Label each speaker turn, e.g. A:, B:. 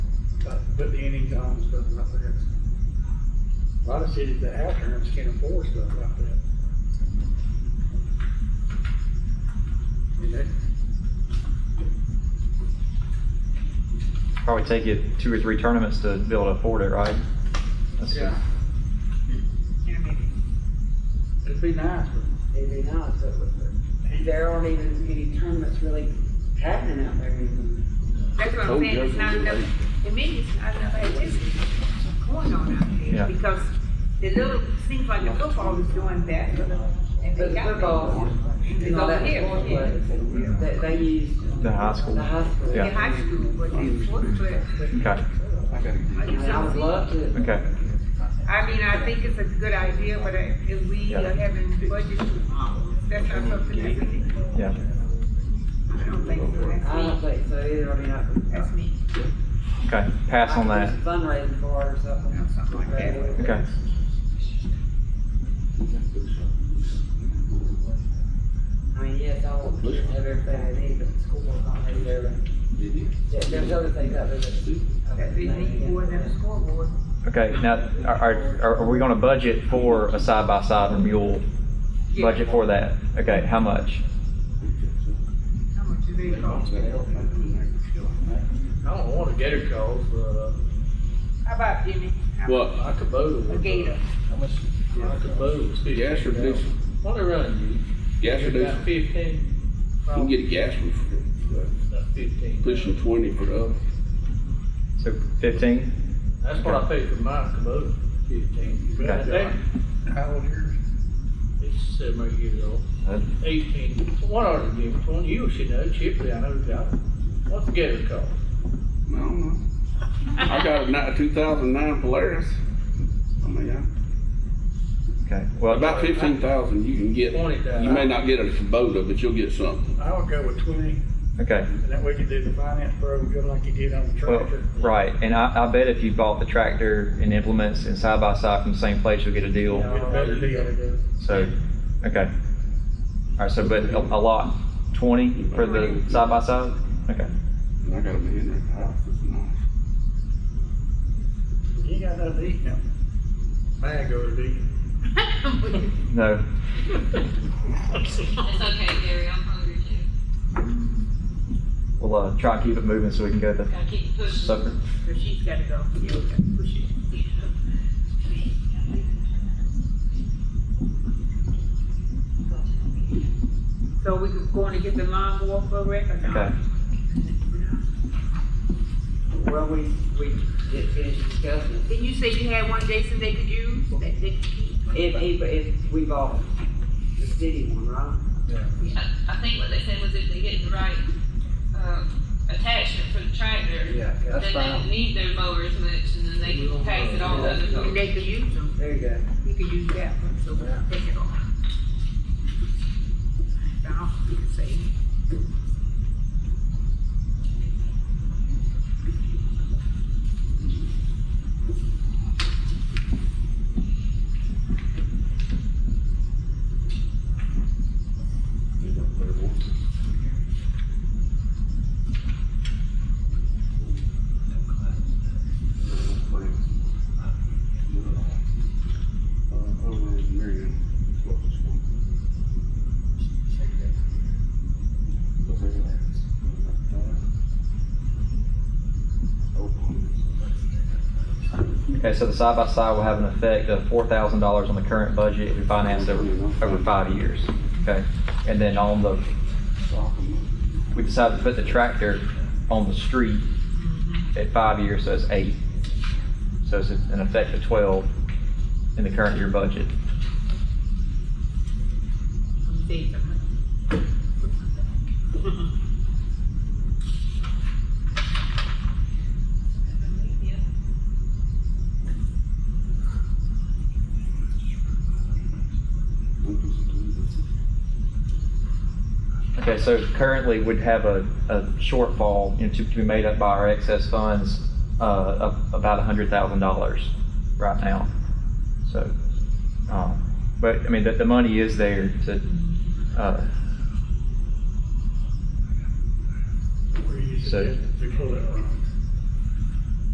A: But the income's stuff like that. A lot of cities that have terms can't afford stuff like that. And that,
B: Probably take you two or three tournaments to be able to afford it, right? That's-
A: yeah,
C: Yeah, maybe.
A: it'd be nice, but
D: It'd be nice, but but there aren't even any tournaments really happening out there anymore.
C: That's what I'm saying, it's not enough, to me, it's not enough activity going on out
B: Yeah.
C: there, because the little, seems like the football is doing better. And
D: But
C: they got
D: football,
C: It's
D: you know,
C: over
D: that's
C: here,
D: one
C: yeah.
D: place that they use.
B: The high school.
D: The high school.
B: Yeah.
C: In high school, but in fourth class.
B: Okay,
C: I just
D: And I
C: don't
D: would
C: see-
D: love to.
B: okay.
C: I mean, I think it's a good idea, but I- if we
B: Yeah.
C: are having budget, that's not something that we,
B: Yeah,
C: I don't think so, that's
D: I
C: me,
D: don't think so either, I mean, I.
C: that's me,
B: okay. Pass on
D: I
B: that.
D: could do some Fundraising for it or something.
C: something like that.
B: Okay.
D: I mean, yes, I want to have everything they need, but the school will not have everything. Yeah, There's other things out there that.
C: That we need more than a scoreboard.
B: Okay, now, are, are, are we gonna budget for a side-by-side or mule?
C: Yeah.
B: Budget for that? Okay, how much?
C: How much do they cost?
A: I don't want a gator calls, but uh,
C: How about Jimmy? How-
E: What?
A: I could boat
C: A gator.
A: uh, How much? I could boat.
E: Gas or diesel?
A: What they running
E: Gas
A: you?
E: reducer?
A: About fifteen.
E: You can get a gas one for
A: About fifteen.
E: pushing twenty for the other.
B: So fifteen?
A: That's what I paid for my Kubota, fifteen. But I
B: Okay.
A: think- How old yours? It's seven eight years old,
B: Uh,
A: eighteen. What are the different one? You should know, Chipley, I know that. What's the gator called?
E: I don't know. I got a ni- two thousand nine Polaris. I mean,
B: Okay,
E: I-
B: well,
E: about fifteen thousand you can get.
A: Twenty thousand.
E: You may not get a Kubota, but you'll get something.
F: I would go with twenty,
B: okay,
F: and that way you do the finance program, good like you did on the
B: well,
F: tractor.
B: right, and I, I bet if you bought the tractor and implements and side-by-side from the same place, you'll get a deal.
F: Get a better deal.
B: So, okay. All right, so but a a lot, twenty for the side by side? Okay,
E: And I got a Henry house, it's nice.
F: You ain't got nothing to eat now. Man, go to eat.
B: no,
G: It's okay, Gary, I'm hungry too.
B: we'll, uh, try and keep it moving so we can go to
G: Gotta keep
B: the
G: pushing.
B: supper.
C: So she's gotta go. Yeah, we gotta push it. So we could go in and get the lawnmower for Rick or not?
B: Okay,
D: Well, we, we get finished discussing.
C: Didn't you say you had one, Jason, they could use, that they could keep?
D: If, if, if we bought the city one, right?
G: Yeah, I think what they said was if they get the right, um, attachment for the tractor,
A: Yeah.
G: then they don't need their mower as much, and then they can pass it on to other
C: And
G: folks.
C: they could use them,
D: There you go.
C: you could use that one, so we'll take it off. Now, you can say.
E: Uh, over in Marion.
B: okay, so the side by side will have an effect of four thousand dollars on the current budget if we finance over, over five years. Okay, and then on the, we decided to put the tractor on the street at five years, so it's eight. So it's an effect of twelve in the current year budget.
C: I'm saying something.
B: Okay, so currently we'd have a, a shortfall, you know, to, to be made up by our excess funds, uh, of about a hundred thousand dollars right now. So, um, but, I mean, the, the money is there to, uh,
F: Where you
B: So-
F: used to pull it from.